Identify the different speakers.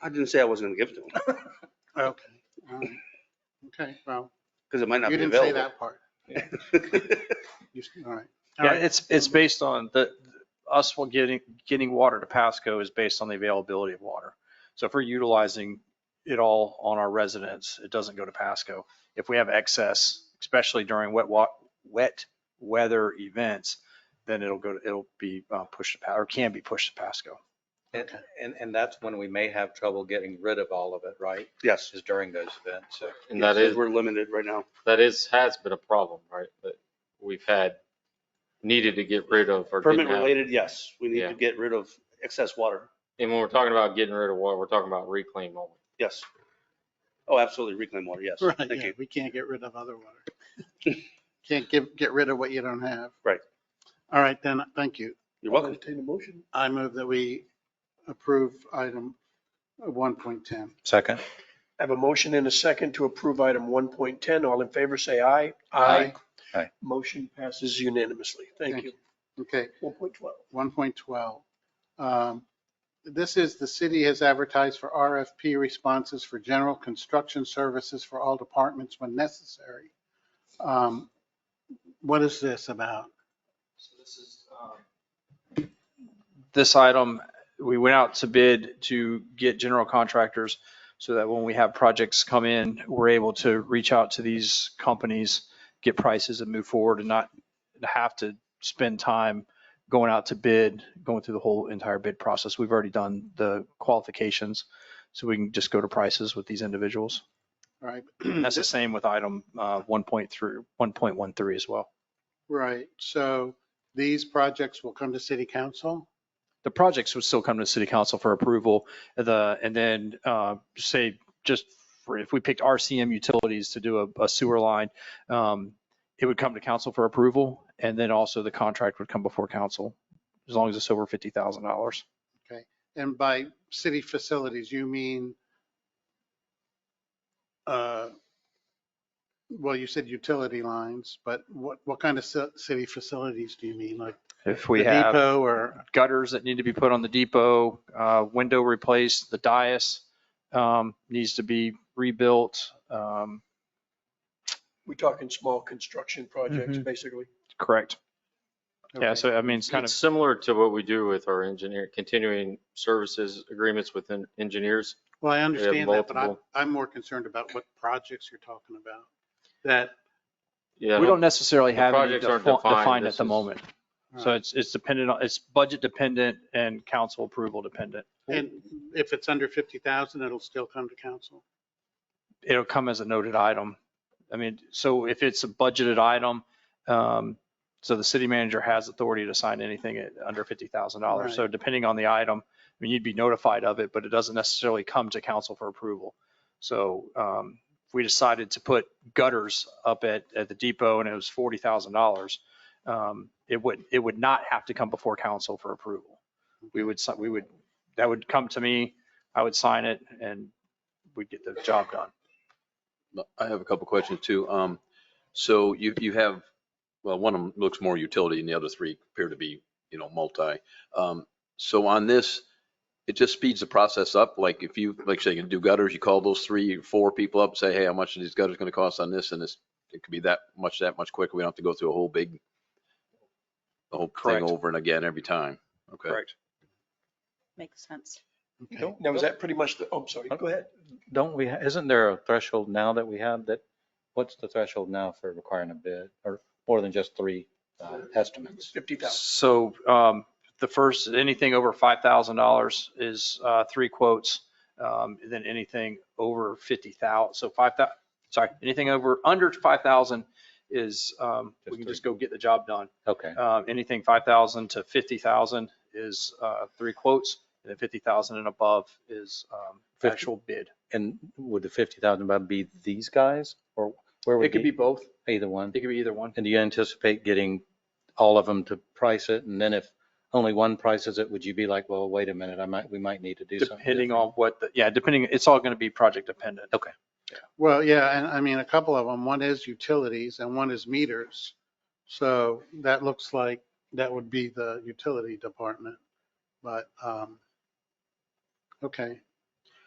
Speaker 1: I didn't say I wasn't gonna give it to him,
Speaker 2: Okay, all right. Okay, well,
Speaker 1: because it might
Speaker 2: you
Speaker 1: not be
Speaker 2: didn't say
Speaker 1: available.
Speaker 2: that part. You, s- all right. All
Speaker 3: Yeah,
Speaker 2: right.
Speaker 3: it's, it's based on the, us will getting, getting water to Pasco is based on the availability of water. So if we're utilizing it all on our residents, it doesn't go to Pasco. If we have excess, especially during wet wa, wet weather events, then it'll go, to- it'll be uh, pushed to, Pa- or can be pushed to Pasco.
Speaker 4: And, and, and that's when we may have trouble getting rid of all of it, right?
Speaker 1: Yes.
Speaker 4: Is during those events, so.
Speaker 5: And that
Speaker 1: Because
Speaker 5: is,
Speaker 1: We're limited right now.
Speaker 5: that is, has been a problem, right? That we've had, needed to get rid of or didn't
Speaker 1: Permit
Speaker 5: have.
Speaker 1: related, yes. We need
Speaker 5: Yeah.
Speaker 1: to get rid of excess water.
Speaker 5: And when we're talking about getting rid of water, we're talking about reclaim only.
Speaker 1: Yes. Oh, absolutely. Reclaim water. Yes.
Speaker 2: Right,
Speaker 1: Thank
Speaker 2: yeah,
Speaker 1: you.
Speaker 2: we can't get rid of other water. Can't give, get rid of what you don't have.
Speaker 1: Right.
Speaker 2: All right, then, thank you.
Speaker 1: You're welcome.
Speaker 2: Entertain a motion. I move that we approve item 1.10.
Speaker 3: Second.
Speaker 6: I have a motion and a second to approve item 1.10. All in favor, say aye.
Speaker 3: Aye.
Speaker 6: Motion passes unanimously. Thank you.
Speaker 2: Okay,
Speaker 6: 1.12.
Speaker 2: 1.12. Um, This is, the city has advertised for RFP responses for general construction services for all departments when necessary. Um, What is this about?
Speaker 3: So this is, um, This item, we went out to bid to get general contractors so that when we have projects come in, we're able to reach out to these companies, get prices and move forward and not have to spend time going out to bid, going through the whole entire bid process. We've already done the qualifications, so we can just go to prices with these individuals.
Speaker 2: All right.
Speaker 3: That's the same with item uh, 1.3, 1.13 as well.
Speaker 2: Right, so these projects will come to city council?
Speaker 3: the projects would still come to city council for approval. The, and then, uh, say, just for, if we picked RCM utilities to do a, a sewer line, um, it would come to council for approval and then also the contract would come before council, as long as it's over fifty thousand dollars.
Speaker 2: And by city facilities, you mean, uh, well, you said utility lines, but what, what kind of ci- city facilities do you mean? Like
Speaker 3: If
Speaker 2: the
Speaker 3: we have
Speaker 2: depot or,
Speaker 3: gutters that need to be put on the depot, uh, window replaced, the dais, um, needs to be rebuilt, um,
Speaker 6: We're talking small construction projects, basically.
Speaker 3: correct. Yeah,
Speaker 2: Okay.
Speaker 3: so I mean, it's kind of.
Speaker 5: It's similar to what we do with our engineer, continuing services agreements with en- engineers.
Speaker 2: well, I understand that, but I'm,
Speaker 5: multiple.
Speaker 2: I'm more concerned about what projects you're talking about. That,
Speaker 5: Yeah, I
Speaker 3: We
Speaker 5: don't-
Speaker 3: don't necessarily
Speaker 5: the
Speaker 3: have any
Speaker 5: projects aren't
Speaker 3: defi-
Speaker 5: defined.
Speaker 3: defined at
Speaker 5: This
Speaker 3: the
Speaker 5: is-
Speaker 3: moment. So it's, it's dependent on, it's budget dependent and council approval dependent.
Speaker 2: and if it's under 50,000, it'll still come to council.
Speaker 3: It'll come as a noted item. I mean, so if it's a budgeted item, um, so the city manager has authority to sign anything at under fifty thousand
Speaker 2: Right.
Speaker 3: dollars. So depending on the item, I mean, you'd be notified of it, but it doesn't necessarily come to council for approval. So, um, if we decided to put gutters up at, at the depot and it was forty thousand dollars, um, it would, it would not have to come before council for approval. We would, si- we would, that would come to me, I would sign it and we'd get the job done.
Speaker 7: I have a couple questions too. Um, so you, you have, well, one of them looks more utility and the other three appear to be, you know, multi. Um, so on this, it just speeds the process up. Like if you, like say you do gutters, you call those three, four people up, say, hey, how much are these gutters gonna cost on this? And it's, it could be that much, that much quicker. We don't have to go through a whole big, the whole thing
Speaker 3: Correct.
Speaker 7: over and again every time. Okay.
Speaker 8: Makes sense.
Speaker 2: Okay.
Speaker 4: Don't-
Speaker 6: Now, is that pretty much the, oh, I'm sorry, go ahead.
Speaker 4: Don't we, ha- isn't there a threshold now that we have that, what's the threshold now for requiring a bid or more than just three uh, estimates?
Speaker 6: 50,000.
Speaker 3: So um, the first, anything over $5,000 is uh, three quotes. um, and Then anything over 50,000, so 5,000, sorry, anything over, under 5,000 is, um, we
Speaker 4: Just
Speaker 3: can
Speaker 4: three.
Speaker 3: just go get the job done.
Speaker 4: Okay,
Speaker 3: Uh, Anything 5,000 to 50,000 is uh, three quotes. And then 50,000 and above is um,
Speaker 4: Fifty.
Speaker 3: actual bid.
Speaker 4: and would the 50,000 about be these guys or where would
Speaker 3: It could be both.
Speaker 4: Either one?
Speaker 3: It could be either one.
Speaker 4: And do you anticipate getting all of them to price it? And then if only one prices it, would you be like, well, wait a minute, I might, we might need to do something?
Speaker 3: Depending
Speaker 4: different?
Speaker 3: on what, the yeah, depending, it's all going to be project dependent.
Speaker 4: Okay.
Speaker 2: Well, yeah, and I mean, a couple of them, one is utilities and one is meters. So that looks like that would be the utility department, but, um, okay,